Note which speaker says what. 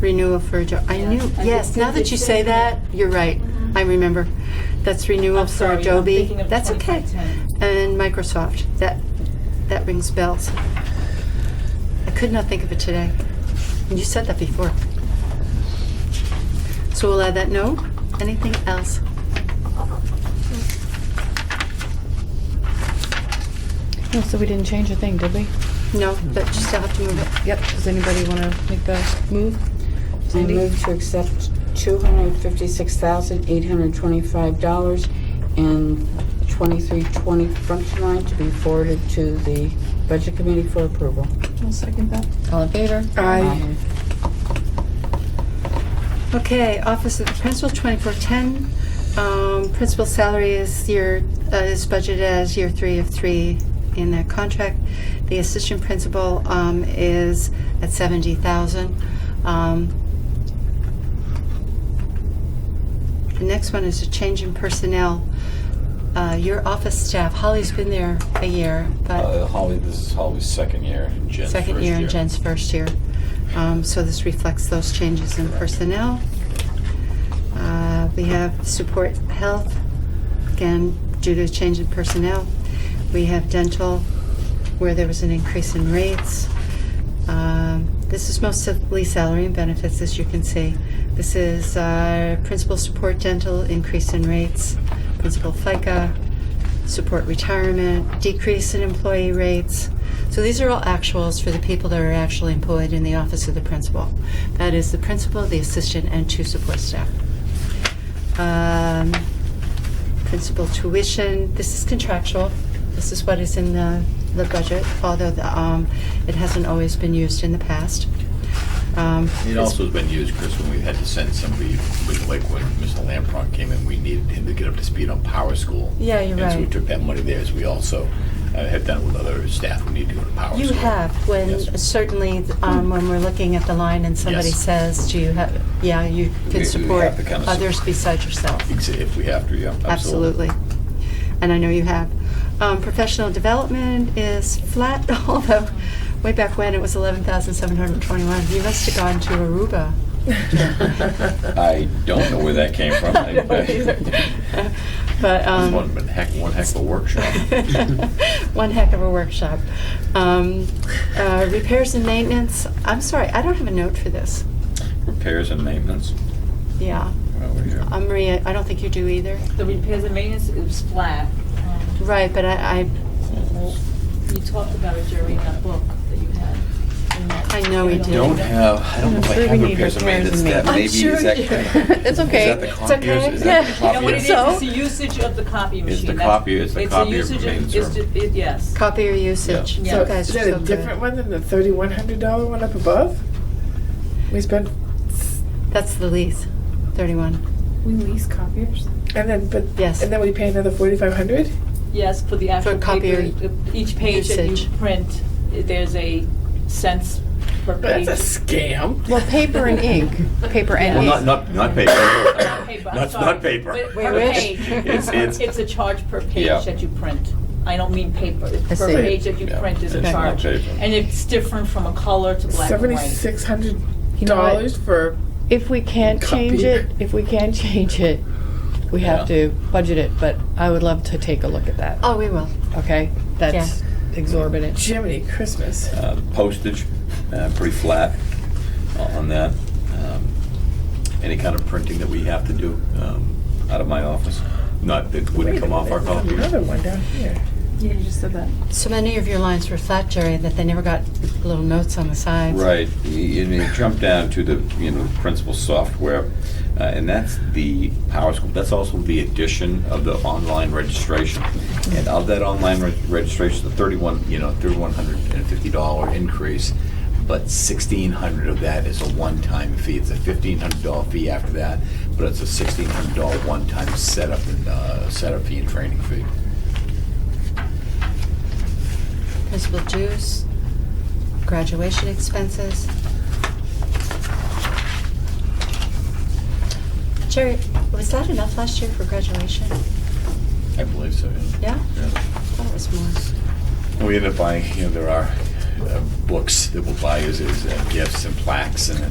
Speaker 1: renewal for a job. I
Speaker 2: Yeah.
Speaker 1: knew,
Speaker 2: I
Speaker 1: yes,
Speaker 2: just
Speaker 1: now
Speaker 2: did
Speaker 1: that
Speaker 2: the
Speaker 1: you say
Speaker 2: same.
Speaker 1: that, you're right.
Speaker 2: Mhm.
Speaker 1: I remember. That's renewal
Speaker 2: I'm
Speaker 1: for
Speaker 2: sorry, I'm
Speaker 1: Adobe.
Speaker 2: thinking of
Speaker 1: That's okay.
Speaker 2: 2510.
Speaker 1: And Microsoft. That that rings bells. I could not think of it today. You said that before. So we'll add that note. Anything else?
Speaker 3: No, so we didn't change a thing, did we?
Speaker 1: No, but you still have to move it.
Speaker 3: Yep. Does anybody want to make the move?
Speaker 4: I
Speaker 3: Cindy?
Speaker 4: move to accept $256,825 and 2320 front line to be forwarded to the Budget Committee for approval.
Speaker 3: I'll second that. All in favor?
Speaker 4: Aye.
Speaker 1: Okay, Office of the Principal, 2410. Um, Principal salary is year, uh, is budgeted as year three of three in that contract. The assistant principal um, is at 70,000. Um, The next one is a change in personnel. Uh, Your office staff, Holly's been there a year, but
Speaker 5: Uh, Holly, this is Holly's second year and Jen's
Speaker 1: second
Speaker 5: first
Speaker 1: year and Jen's first year. Um, So this reflects those changes in
Speaker 5: Correct.
Speaker 1: personnel. Uh, We have support health, again, due to change in personnel. We have dental, where there was an increase in rates. Um, This is mostly salary and benefits, as you can see. This is uh, principal support dental, increase in rates, principal FICA, support retirement, decrease in employee rates. So these are all actuals for the people that are actually employed in the office of the principal. That is the principal, the assistant, and two support staff. Um, Principal tuition, this is contractual. This is what is in the, the budget, although the, um, it hasn't always been used in the past. Um,
Speaker 5: It also has been used, Chris, when we had to send somebody, with- like when Mr. Lampron came in, we needed him to get up to speed on power school.
Speaker 1: Yeah, you're
Speaker 5: And so we
Speaker 1: right.
Speaker 5: took that money there, as we also uh, have done with other staff who need to go to power
Speaker 1: You
Speaker 5: school.
Speaker 1: have, when,
Speaker 5: Yes.
Speaker 1: certainly, um, when we're looking at the line and somebody
Speaker 5: Yes.
Speaker 1: says, do you have, yeah, you
Speaker 5: We-
Speaker 1: can
Speaker 5: we
Speaker 1: support
Speaker 5: have to kinda
Speaker 1: others
Speaker 5: support.
Speaker 1: besides yourself.
Speaker 5: Ex- If we have to, yeah, absolutely.
Speaker 1: Absolutely. And I know you have. Um, professional development is flat, although way back when it was 11,721. You must have gone to Aruba.
Speaker 5: I don't know where that came from.
Speaker 1: I don't either. But,
Speaker 5: This
Speaker 1: um.
Speaker 5: one, but heck, one heck of a workshop.
Speaker 1: One heck of a workshop. Um, uh, repairs and maintenance, I'm sorry, I don't have a note for this.
Speaker 5: Repairs and maintenance.
Speaker 1: Yeah.
Speaker 5: Well, we have-
Speaker 1: Uh, Maria, I don't think you do either.
Speaker 2: The repairs and maintenance is flat. Um,
Speaker 1: Right, but I, I
Speaker 2: well, You talked about it, Jerry, in that book that you had. in that-
Speaker 1: I know we
Speaker 2: in
Speaker 1: did.
Speaker 2: that-
Speaker 5: Don't have, I don't know if I
Speaker 3: I'm sure
Speaker 5: have
Speaker 3: we need
Speaker 5: repairs and
Speaker 3: repairs
Speaker 5: maintenance
Speaker 3: and
Speaker 5: that
Speaker 3: maintenance.
Speaker 1: I'm
Speaker 5: maybe
Speaker 1: sure
Speaker 5: is that.
Speaker 1: you-
Speaker 3: It's okay.
Speaker 5: Is that the
Speaker 3: It's
Speaker 5: copiers?
Speaker 1: okay.
Speaker 5: Is that the
Speaker 3: Yeah.
Speaker 2: You know what it
Speaker 5: copiers?
Speaker 2: is?
Speaker 3: So-
Speaker 2: It's the usage of the copy machine.
Speaker 5: It's the
Speaker 2: That's-
Speaker 5: copy- it's the copy of
Speaker 2: It's the
Speaker 5: remains
Speaker 2: usage of, it's, ju- it- yes.
Speaker 1: copy your usage.
Speaker 2: Yeah.
Speaker 1: You
Speaker 2: So
Speaker 1: guys
Speaker 6: Is
Speaker 1: are
Speaker 6: that
Speaker 1: so
Speaker 6: a
Speaker 1: good.
Speaker 6: different one than the thirty-one hundred dollar one up above? We spent,
Speaker 1: That's the lease, 31.
Speaker 7: We lease copiers?
Speaker 6: and then, but,
Speaker 1: Yes.
Speaker 6: and then we pay another forty-five hundred?
Speaker 2: Yes, for the
Speaker 1: For
Speaker 2: actual
Speaker 1: copy
Speaker 2: paper, each page that you
Speaker 1: usage.
Speaker 2: print, there's a cents per page.
Speaker 6: That's a scam.
Speaker 3: Well, paper and ink. Paper and
Speaker 5: Well, not,
Speaker 3: ink.
Speaker 5: not, not paper.
Speaker 2: Paper, I'm
Speaker 5: Not,
Speaker 2: sorry.
Speaker 5: not paper.
Speaker 2: But
Speaker 1: Wait,
Speaker 2: Per
Speaker 1: which?
Speaker 2: page.
Speaker 5: It's, it's.
Speaker 2: It's a charge per
Speaker 5: Yeah.
Speaker 2: page that you print. I don't mean paper.
Speaker 3: I
Speaker 2: Per
Speaker 3: see.
Speaker 2: page that you
Speaker 5: Yeah,
Speaker 2: print is a
Speaker 5: it's not
Speaker 2: charge.
Speaker 5: paper.
Speaker 2: And it's different from a color to black and white.
Speaker 6: Seventy-six hundred
Speaker 3: You know what?
Speaker 6: dollars for,
Speaker 3: If we can't change it, if we can change it, we have
Speaker 5: Yeah.
Speaker 3: to budget it, but I would love to take a look at that,
Speaker 1: Oh, we will.
Speaker 3: okay? That's exorbitant.
Speaker 6: Jiminy Christmas.
Speaker 5: Uh, Postage, uh, pretty flat uh, on that. Um, Any kind of printing that we have to do um, out of my office, not, it wouldn't
Speaker 6: Wait a
Speaker 5: come off our
Speaker 6: minute, there's Another
Speaker 5: copiers.
Speaker 6: one down here.
Speaker 7: Yeah, you just said that.
Speaker 1: So many of your lines were flat, Jerry, that they never got little notes on the sides.
Speaker 5: Right, y- and you jump down to the, you know, principal software, uh, and that's the Power School, that's also the addition of the online registration. And of that online reg- registration, the thirty-one, you know, thirty-one hundred and fifty dollar increase, but sixteen hundred of that is a one-time fee, it's a fifteen hundred dollar fee after that, but it's a sixteen hundred dollar one-time setup and, uh, setup fee and training fee.
Speaker 1: Principal dues, graduation expenses. Jerry, was that enough last year for graduation?
Speaker 5: I believe so,
Speaker 1: Yeah?
Speaker 5: Yeah.
Speaker 1: I thought it was more.
Speaker 5: We end up buying, you know, there are uh, books that we'll buy as, as uh, gifts and plaques and